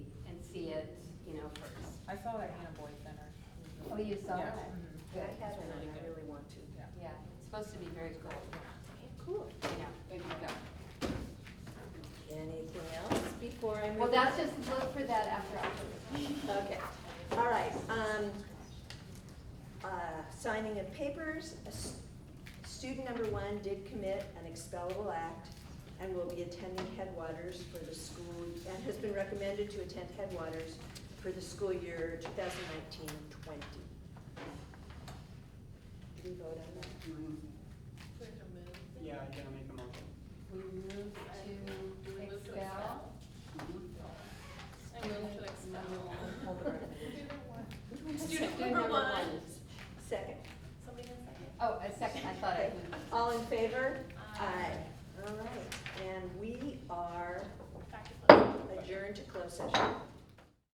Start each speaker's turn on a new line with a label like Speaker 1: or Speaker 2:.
Speaker 1: I saw that Anna Boy Center.
Speaker 2: Oh, you saw
Speaker 1: Yeah.
Speaker 2: that?
Speaker 1: Mhm.
Speaker 2: Good.
Speaker 3: I haven't, and I really want to.
Speaker 1: Yeah.
Speaker 2: Yeah, it's supposed to be very cool.
Speaker 3: Cool.
Speaker 2: Yeah.
Speaker 3: There you go. Anything else before I move?
Speaker 2: Well, that's
Speaker 3: on?
Speaker 2: just, look for that after October.
Speaker 3: Okay, all right, um, uh, signing of papers, A s- student number one did commit an expellable act and will be attending Headwaters for the school, and has been recommended to attend Headwaters for the school year 2019-20. Did we vote on that?
Speaker 4: Yeah, I gotta make a motion.
Speaker 2: We move
Speaker 5: Do we
Speaker 2: to
Speaker 5: move to
Speaker 2: expel.
Speaker 5: I move to expel.
Speaker 2: Hold the recommendation.
Speaker 5: Student
Speaker 2: Student
Speaker 5: number one.
Speaker 3: Second.
Speaker 5: Somebody in second.
Speaker 2: Oh, a second, I thought I
Speaker 3: Okay.
Speaker 2: moved.
Speaker 3: All in favor?
Speaker 5: Aye.
Speaker 3: All right, and we are
Speaker 5: Back to close.
Speaker 3: adjourned to closed session.